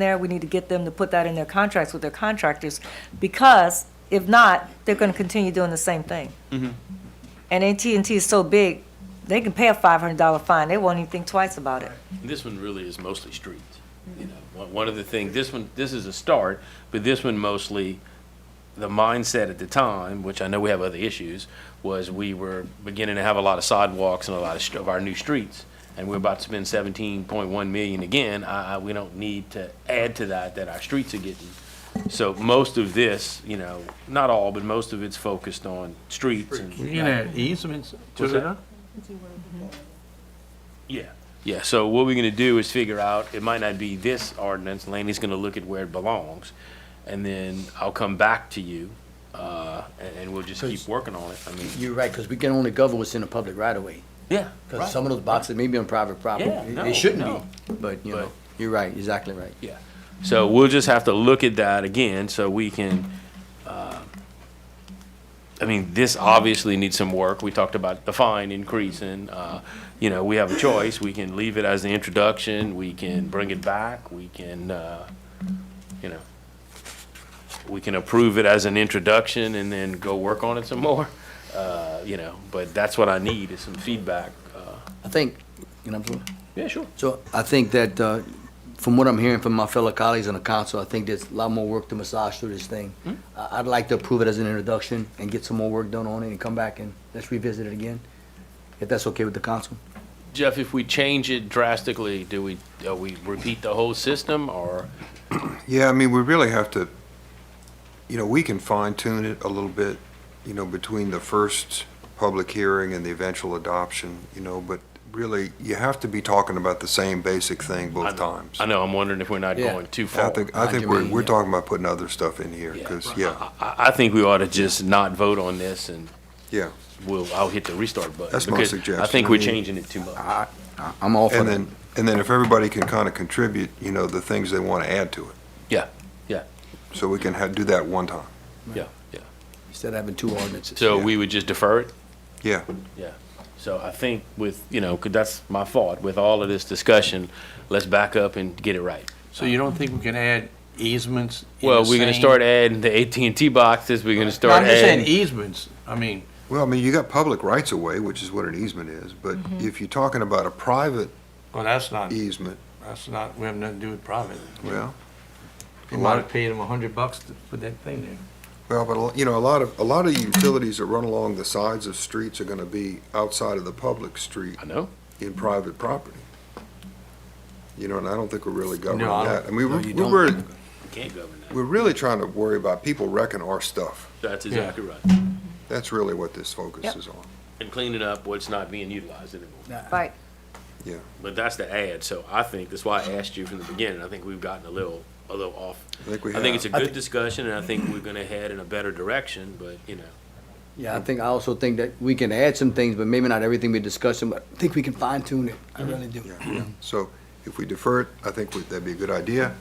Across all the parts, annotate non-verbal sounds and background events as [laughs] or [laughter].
there, we need to get them to put that in their contracts with their contractors, because if not, they're gonna continue doing the same thing. Mm-hmm. And AT&T is so big, they can pay a five hundred dollar fine, they won't even think twice about it. This one really is mostly streets, you know, one, one of the things, this one, this is a start, but this one mostly, the mindset at the time, which I know we have other issues, was we were beginning to have a lot of sidewalks and a lot of, str- of our new streets. And we're about to spend seventeen point one million again, I, I, we don't need to add to that, that our streets are getting. So most of this, you know, not all, but most of it's focused on streets and. You're gonna add easements What's to it? that? Yeah. Yeah, so what we're gonna do is figure out, it might not be this ordinance, Laney's gonna look at where it belongs, and then I'll come back to you, uh, and, and we'll just keep working on it, I mean. You're right, because we can only govern what's in the public right of way. Yeah. right. Because some of those boxes may be on private property. Yeah, It- no, It shouldn't no. be, but, you But- know, you're right, exactly right. Yeah, so we'll just have to look at that again, so we can, uh, I mean, this obviously needs some work, we talked about the fine increasing, uh, you know, we have a choice, we can leave it as the introduction, we can bring it back, we can, uh, you know, we can approve it as an introduction and then go work on it some more, uh, you know, but that's what I need, is some feedback, uh, I think, you know, I'm sorry. yeah, sure. so I think that, uh, from what I'm hearing from my fellow colleagues on the council, I think there's a lot more work to massage through this thing. Hmm? I- I'd like to approve it as an introduction and get some more work done on it and come back and let's revisit it again, if that's okay with the council. Jeff, if we change it drastically, do we, uh we repeat the whole system or? Yeah, I mean, we really have to, you know, we can fine tune it a little bit, you know, between the first public hearing and the eventual adoption, you know, but really, you have to be talking about the same basic thing I both know- times. I know, I'm wondering if we're not Yeah. going too I far. think, I think we're, we're talking about putting other stuff in here, Yeah. because, yeah, I, I- I think we ought to just not vote on this and yeah. we'll, I'll hit the restart button. That's my because I suggestion. think I we're mean- changing it too much. I, I- I'm all for Uh, And that. then, and then if everybody can kind of contribute, you know, the things they want to add to it, Yeah, yeah, so we can ha do that one time. yeah, yeah. Instead of having two ordinances. So Yeah. we would just defer it? Yeah, Yeah. So I think with, you know, 'cause that's my fault, with all of this discussion, let's back up and get it right. So you don't think we can add easements? in Well, the we're gonna same- start adding the AT&T boxes, we're gonna No, I'm start just saying e- adding. easements, I mean, well, I mean, you got public rights of way, which is what an easement is, but if you're talking about a private well, that's not, easement, that's not, we have nothing to do with private. well, You might have paid them a hundred bucks to put that thing there. Well, but, a lo- you know, a lot of, a lot of utilities that run along the sides of streets are gonna be outside of the public street I know. in private property. You know, and I don't think we're really governing I don't- that. I mean, no, you we're, don't. we're, Can't govern that. we're really trying to worry about people wrecking our stuff. That's Yeah. exactly right. That's really what this Yep. focus is on. And cleaning up what's not being utilized anymore. Right, But that's the ad, so I think, that's why I asked you from the beginning, I think we've gotten a little, a little off. I think we I think it's a have, I good thi- discussion, and I think we're gonna head in a better direction, but, you know. Yeah, I think, I also think that we can add some things, but maybe not everything we're discussing, but I think we can fine tune it. I really do. so if we defer it, I think we- that'd be a good idea.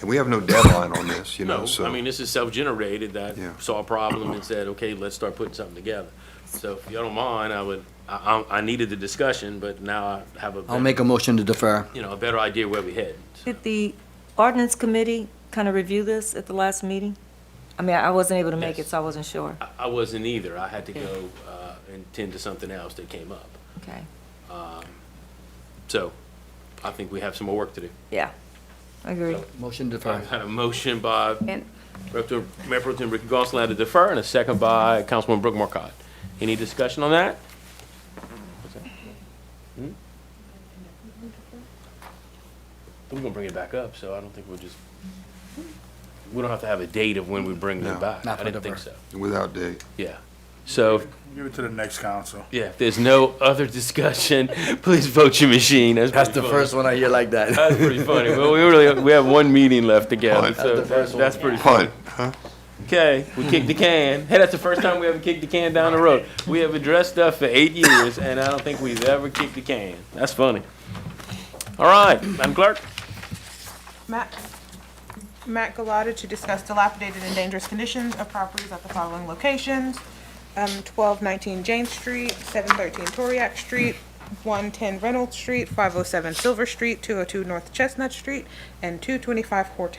And we have no deadline on this, you know, No, so. I mean, this is self-generated, that Yeah. saw a problem and said, okay, let's start putting something together. So if y'all don't mind, I would, I, I I needed the discussion, but now I have a, I'll make better- a motion to defer. you know, a better idea where we head. did the ordinance committee kind of review this at the last meeting? I mean, I wasn't able to make it, Yes. so I wasn't sure, I, I wasn't either, I had to go, uh, and tend to something else that came up. okay, So, I think we have some more work to do. yeah, I agree. Motion to defer. I've had a motion by And Rep. to- Mayor Pro Tem Ricky Gonsalas to defer, and a second by Councilwoman Brooke Marcotte. Any discussion on that? What's that? Hmm? We're gonna bring it back up, so I don't think we'll just, we don't have to have a date of when we bring No, it back. not I for didn't think so, defer. Without date. yeah. So, Give it to the next council. yeah, if there's no other discussion, [laughs] please vote your machine. That's pretty the funny. first one I hear like that. That's pretty funny. Well, we really, we have one meeting left together, so that's pretty Punt, huh? Okay, we kicked the can. Hey, that's the first time we ever kicked the can down the road. We have addressed stuff for eight years, and I don't think we've ever kicked the can. That's funny. All right, Madam Clerk? Matt, Matt Galata to discuss dilapidated and dangerous conditions of properties at the following locations. Um, twelve nineteen Jane Street, seven thirteen Toriak Street, 110 Reynolds Street, 507 Silver Street, 202 North Chestnut Street, and 225 Horton